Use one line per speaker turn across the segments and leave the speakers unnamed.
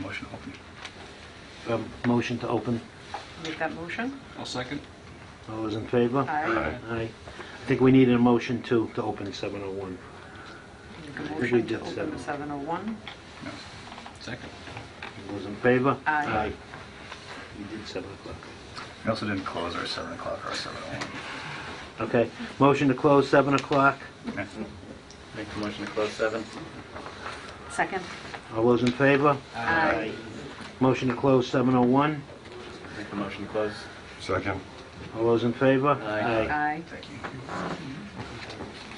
motion open.
A motion to open.
Make that motion?
I'll second.
All those in favor?
Aye.
Aye. I think we need a motion to, to open 701.
Make a
think we
motion
did
to open oh
seven.
the 701.
No. Second.
All Those in favor?
Aye.
We did 7 o'clock.
We also didn't close our 7 o'clock or our 7:01.
Okay, motion to close 7 o'clock.
Make the motion to close seven.
Second?
All those in favor? Motion to close 701.
Make the motion to close.
Second.
All those in favor?
Aye.
Aye.
Thank you.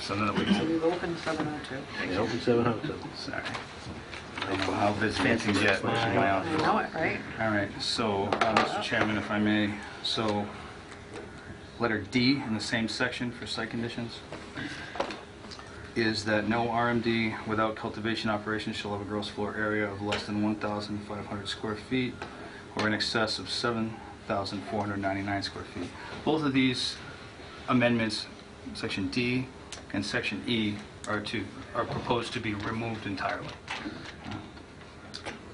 So now we
So
can,
we've opened 702.
Yeah, Open 702.
sorry.
How fancy
is this motion in my
You know it, right?
All right, so, uh, Mr. Chairman, if I may, so, letter D in the same section for site conditions is that no RMD without cultivation operations shall have a gross floor area of less than 1,500 square feet or in excess of 7,499 square feet. Both of these amendments, section D and section E, are to, are proposed to be removed entirely.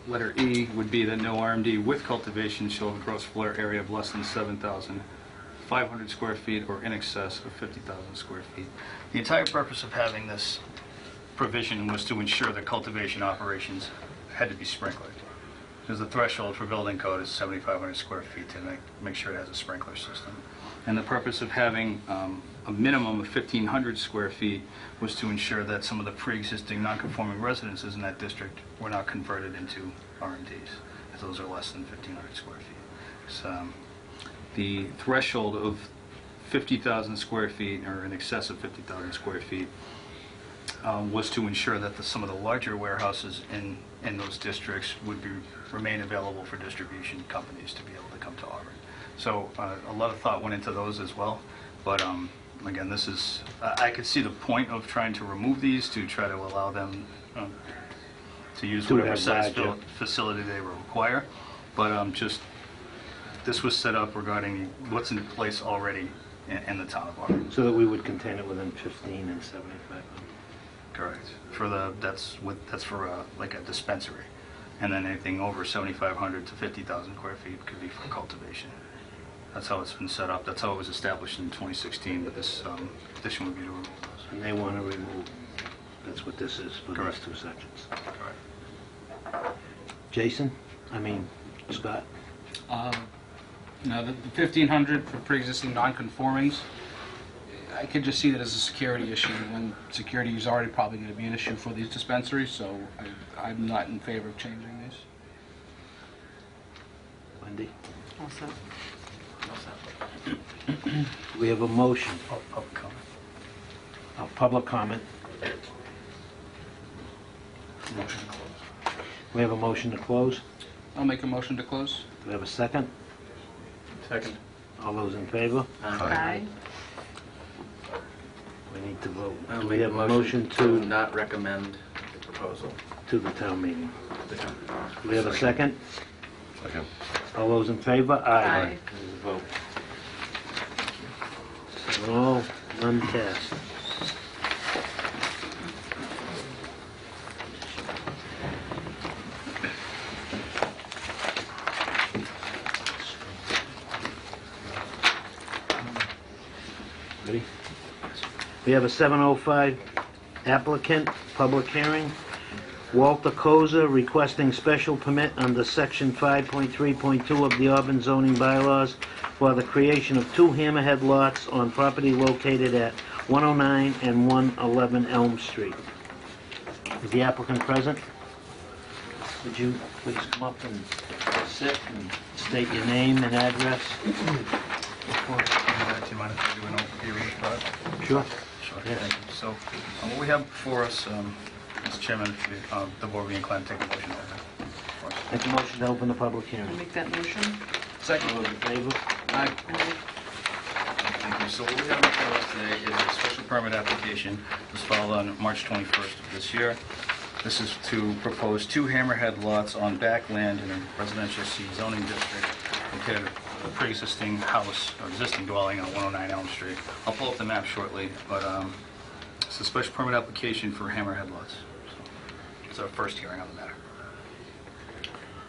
Letter E would be that no RMD with cultivation shall have a gross floor area of less than 7,500 square feet or in excess of 50,000 square feet. The entire purpose of having this provision was to ensure that cultivation operations had to be sprinkled. Because the threshold for building code is 7,500 square feet to make, make sure it has a sprinkler system. And the purpose of having um, a minimum of 1,500 square feet was to ensure that some of the pre-existing non-conforming residences in that district were not converted into R&Ds, if those are less than 1,500 square feet. So, um, The threshold of 50,000 square feet, or in excess of 50,000 square feet, um, was to ensure that the- some of the larger warehouses in, in those districts would be, remain available for distribution companies to be able to come to Auburn. So uh, a lot of thought went into those as well, but um, again, this is, I I could see the point of trying to remove these to try to allow them um, to use
To
whatever
have
size
larger.
fil- facility they require, but um, just, this was set up regarding what's in place already in- in the town of Auburn.
So that we would contain it within 15 and 75.
Correct. For the, that's with, that's for a, like a dispensary. And then anything over 7,500 to 50,000 square feet could be for cultivation. That's how it's been set up. That's how it was established in 2016, but this um, petition would be to remove
And they want to remove, that's what this is for those
Correct.
two sections.
those. Correct.
Jason? I mean, Scott?
Um, Now, the the 1,500 for pre-existing non-conformings, I could just see that as a security issue, and security is already probably going to be an issue for these dispensaries, so I- I'm not in favor of changing these.
Wendy?
Also,
We have a motion,
Pub- Public comment.
a public comment.
Motion to close.
We have a motion to close.
I'll make a motion to close.
Do we have a second?
Second.
All those in favor?
aye.
We need to vote.
I'll
Do
make
we
Uh, a
have a motion
to
to,
not recommend the proposal.
to the town meeting? Do we have a second?
Second.
All those in favor?
Aye.
There's a vote.
Seven all, none cast. Ready? We have a 705 applicant, public hearing. Walter Koza requesting special permit under Section 5.3.2 of the Auburn zoning bylaws for the creation of two hammerhead lots on property located at 109 and 111 Elm Street. Is the applicant present? Would you please come up and sit and state your name and address?
Before, uh, Do you mind if I do an overview of the project?
Sure.
Sure,
Yeah.
thank you. So, uh, what we have before us, um, Mr. Chairman, if you- uh, the board would be inclined to take a motion over. Of course.
Make a motion to open the public
I'll
hearing.
Make that motion.
Second.
All those in favor?
Aye.
Aye.
Thank you. So what we have before us today is a special permit application that was filed on March 21st of this year. This is to propose two hammerhead lots on backland in a residential C zoning district located at a pre-existing house or existing dwelling on 109 Elm Street. I'll pull up the map shortly, but um, it's a special permit application for hammerhead lots. So It's our first hearing on the matter.